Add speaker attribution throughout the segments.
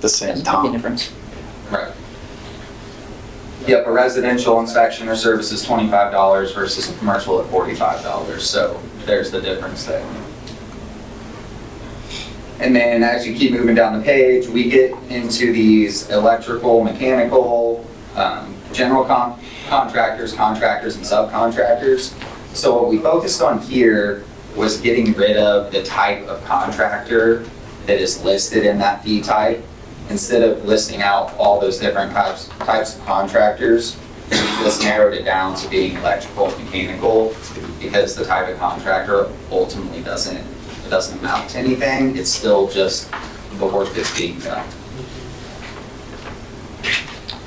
Speaker 1: the same
Speaker 2: That's the
Speaker 1: time.
Speaker 2: difference.
Speaker 3: Right. Yep, a residential inspection or service is twenty-five dollars versus a commercial at forty-five dollars, so there's the difference there. And then as you keep moving down the page, we get into these electrical, mechanical, um, general con- contractors, contractors, and subcontractors. So what we focused on here was getting rid of the type of contractor that is listed in that fee type instead of listing out all those different types, types of contractors, we just narrowed it down to being electrical, mechanical, because the type of contractor ultimately doesn't, it doesn't amount to anything, it's still just the work that's being done.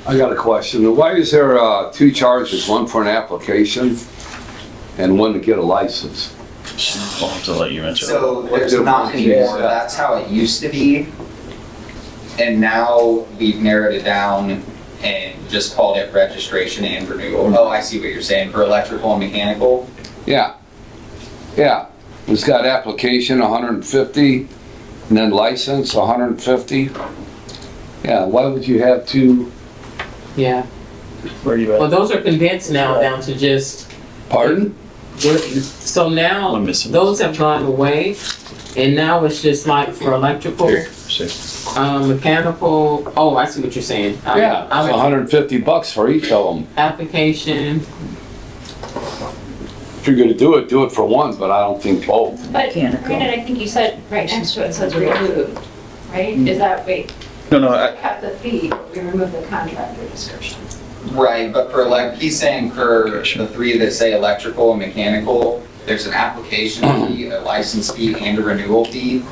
Speaker 4: I got a question. Why is there, uh, two charges, one for an application and one to get a license?
Speaker 5: I'll have to let you answer. that.
Speaker 3: So there's not anymore, that's how it used to be. And now we've narrowed it down and just called it registration and renewal. Oh, I see what you're saying, for electrical and mechanical,
Speaker 4: Yeah, yeah. It's got application, hundred and fifty, and then license, hundred and fifty. Yeah, why would you have two
Speaker 2: Yeah,
Speaker 5: Where are you
Speaker 2: well,
Speaker 5: at?
Speaker 2: those are condensed now down to just,
Speaker 4: pardon?
Speaker 2: so
Speaker 5: I'm
Speaker 2: now,
Speaker 5: missing.
Speaker 2: those have gone away. And now it's just like for electrical,
Speaker 5: Here, see.
Speaker 2: um, mechanical, oh, I see what you're saying. I'm-
Speaker 4: Yeah,
Speaker 2: I'm-
Speaker 4: it's hundred and fifty bucks for each of them.
Speaker 2: Application,
Speaker 4: If you're gonna do it, do it for one, but I don't think both.
Speaker 6: But granted, I think you said right next to it says removed, right? Is that, wait,
Speaker 5: No, no, I,
Speaker 6: we kept the fee, but we removed the contractor description.
Speaker 3: Right, but for elec, he's saying for the three that say electrical and mechanical, there's an application fee, a license fee, and a renewal fee.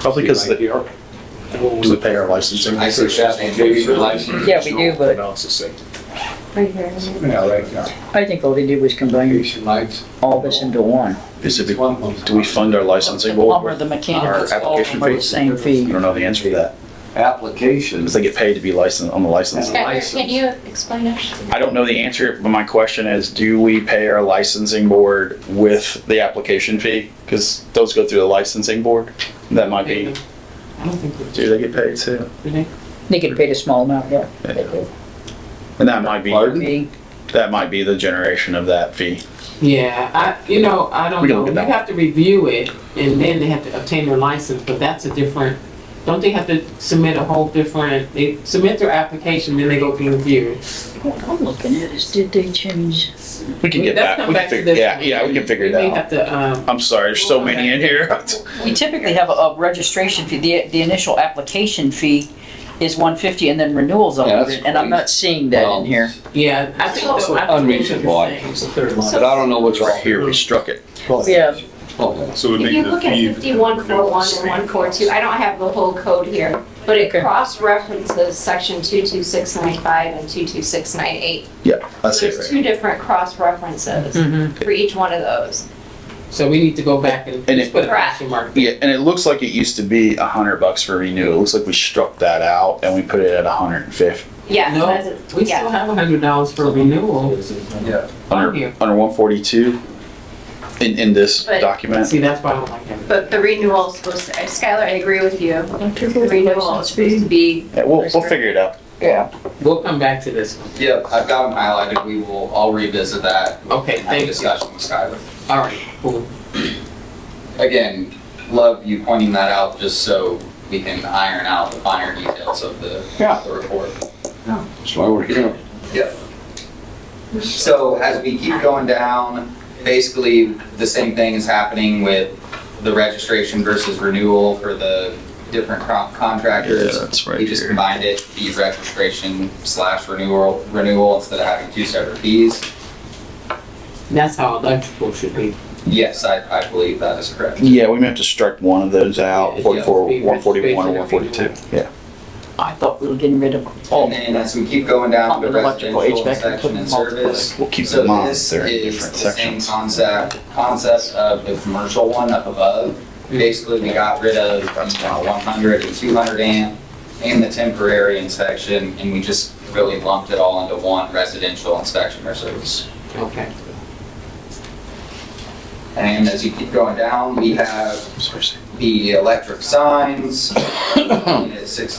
Speaker 5: probably because
Speaker 7: Right
Speaker 5: the,
Speaker 7: here.
Speaker 5: we pay our licensing.
Speaker 3: I see that, and
Speaker 4: Maybe
Speaker 3: maybe
Speaker 4: license.
Speaker 8: Yeah, we do, but
Speaker 7: Now it's the same.
Speaker 6: Right here.
Speaker 4: Yeah, right, yeah.
Speaker 8: I think all they did was combine
Speaker 4: Application lights.
Speaker 8: all this into one.
Speaker 5: Is it,
Speaker 4: One month.
Speaker 5: do we fund our licensing? Well,
Speaker 8: Plumber, the
Speaker 5: Our
Speaker 8: mechanic,
Speaker 5: application
Speaker 8: are the
Speaker 5: fees?
Speaker 8: same
Speaker 5: I
Speaker 8: fee.
Speaker 5: don't know the answer to that.
Speaker 4: Applications.
Speaker 5: Because they get paid to be licensed, on the license.
Speaker 6: Can you explain it?
Speaker 5: I don't know the answer, but my question is, do we pay our licensing board with the application fee? Because those go through the licensing board. That might be,
Speaker 2: I don't think we
Speaker 5: do they get paid too?
Speaker 2: do that.
Speaker 8: They get paid a small amount, yeah.
Speaker 5: And that might be,
Speaker 4: Pardon?
Speaker 8: Fee.
Speaker 5: that might be the generation of that fee.
Speaker 2: Yeah, I, you know, I don't
Speaker 5: We can
Speaker 2: know,
Speaker 5: look
Speaker 2: you
Speaker 5: at that.
Speaker 2: have to review it, and then they have to obtain their license, but that's a different, don't they have to submit a whole different, they submit their application, then they go through review.
Speaker 8: What I'm looking at is, did they change?
Speaker 5: We can get
Speaker 2: Let's
Speaker 5: back,
Speaker 2: come
Speaker 5: we
Speaker 2: back
Speaker 5: can
Speaker 2: to
Speaker 5: figure,
Speaker 2: this
Speaker 5: yeah,
Speaker 2: one.
Speaker 5: yeah, we can figure it
Speaker 2: We may
Speaker 5: out.
Speaker 2: have to, um,
Speaker 5: I'm sorry, there's so many in here.
Speaker 8: We typically have a, a registration fee, the, the initial application fee is one fifty and then renewals on
Speaker 4: Yeah, that's
Speaker 8: it, and I'm not seeing that in here.
Speaker 2: yeah, I think.
Speaker 6: It's
Speaker 2: the- Oh, I think what
Speaker 4: unreasonable,
Speaker 2: you're
Speaker 4: I
Speaker 2: saying.
Speaker 4: But I don't know what's
Speaker 5: Right
Speaker 4: right here.
Speaker 5: here, we struck it.
Speaker 8: Yeah,
Speaker 4: Okay.
Speaker 7: So we
Speaker 6: If you look at fifty-one four one and one four two, I don't have the whole code here, but it
Speaker 8: Okay.
Speaker 6: cross-references section two-two-six-nine-five and two-two-six-nine-eight.
Speaker 5: That's it,
Speaker 6: There's
Speaker 5: right?
Speaker 6: two different cross-references
Speaker 8: mhm.
Speaker 6: for each one of those.
Speaker 2: So we need to go back and
Speaker 5: And
Speaker 2: just
Speaker 5: it-
Speaker 2: put a question mark there.
Speaker 5: Yeah, and it looks like it used to be a hundred bucks for renew. It looks like we struck that out and we put it at a hundred and fifty.
Speaker 6: Yeah.
Speaker 2: No,
Speaker 6: that's it.
Speaker 2: We
Speaker 6: Yeah.
Speaker 2: still have a hundred dollars for renewal on
Speaker 5: Under,
Speaker 2: here.
Speaker 5: under one forty-two in, in this
Speaker 6: But-
Speaker 5: document.
Speaker 2: See, that's why I don't like that.
Speaker 6: But the renewal is supposed to, Skylar, I agree with you. The renewal is
Speaker 8: license
Speaker 6: supposed
Speaker 8: fee.
Speaker 6: to be,
Speaker 5: Yeah, We'll, we'll figure it out.
Speaker 2: We'll come back to this one.
Speaker 3: Yep, I've got them highlighted, we will, I'll revisit that.
Speaker 2: Okay,
Speaker 3: Have a
Speaker 2: thank you.
Speaker 3: discussion with Skylar.
Speaker 2: All right, cool.
Speaker 3: Again, love you pointing that out, just so we can iron out the finer details of the,
Speaker 4: Yeah.
Speaker 3: the report.
Speaker 4: That's why we're here.
Speaker 3: So as we keep going down, basically the same thing is happening with the registration versus renewal for the different co- contractors.
Speaker 5: that's
Speaker 3: We just combined it, the registration slash renewal, renewal instead of having two separate fees.
Speaker 2: That's how electrical should be.
Speaker 3: Yes, I, I believe that is correct.
Speaker 8: Mm.
Speaker 5: Yeah, we may have to strike one of those
Speaker 2: Yeah,
Speaker 5: out,
Speaker 2: it's
Speaker 5: forty-four,
Speaker 2: just be
Speaker 5: one forty-one or one
Speaker 2: registration
Speaker 5: forty-two. Yeah.
Speaker 8: I thought we were getting rid of
Speaker 3: And then as we keep going down to the
Speaker 8: Under electrical
Speaker 3: residential
Speaker 8: HVAC,
Speaker 3: inspection and
Speaker 8: put multiple.
Speaker 3: service,
Speaker 5: We'll keep
Speaker 3: So
Speaker 5: them on,
Speaker 3: this
Speaker 5: they're in
Speaker 3: is
Speaker 5: different
Speaker 3: the same
Speaker 5: sections.
Speaker 3: concept, concept of the commercial one up above.
Speaker 8: Mm.
Speaker 3: Basically, we got rid of the uh, 100 and 200 amp and the temporary inspection, and we just really lumped it all into one residential inspection or service.
Speaker 2: Okay.
Speaker 3: And as you keep going down, we have the electric signs, uh, six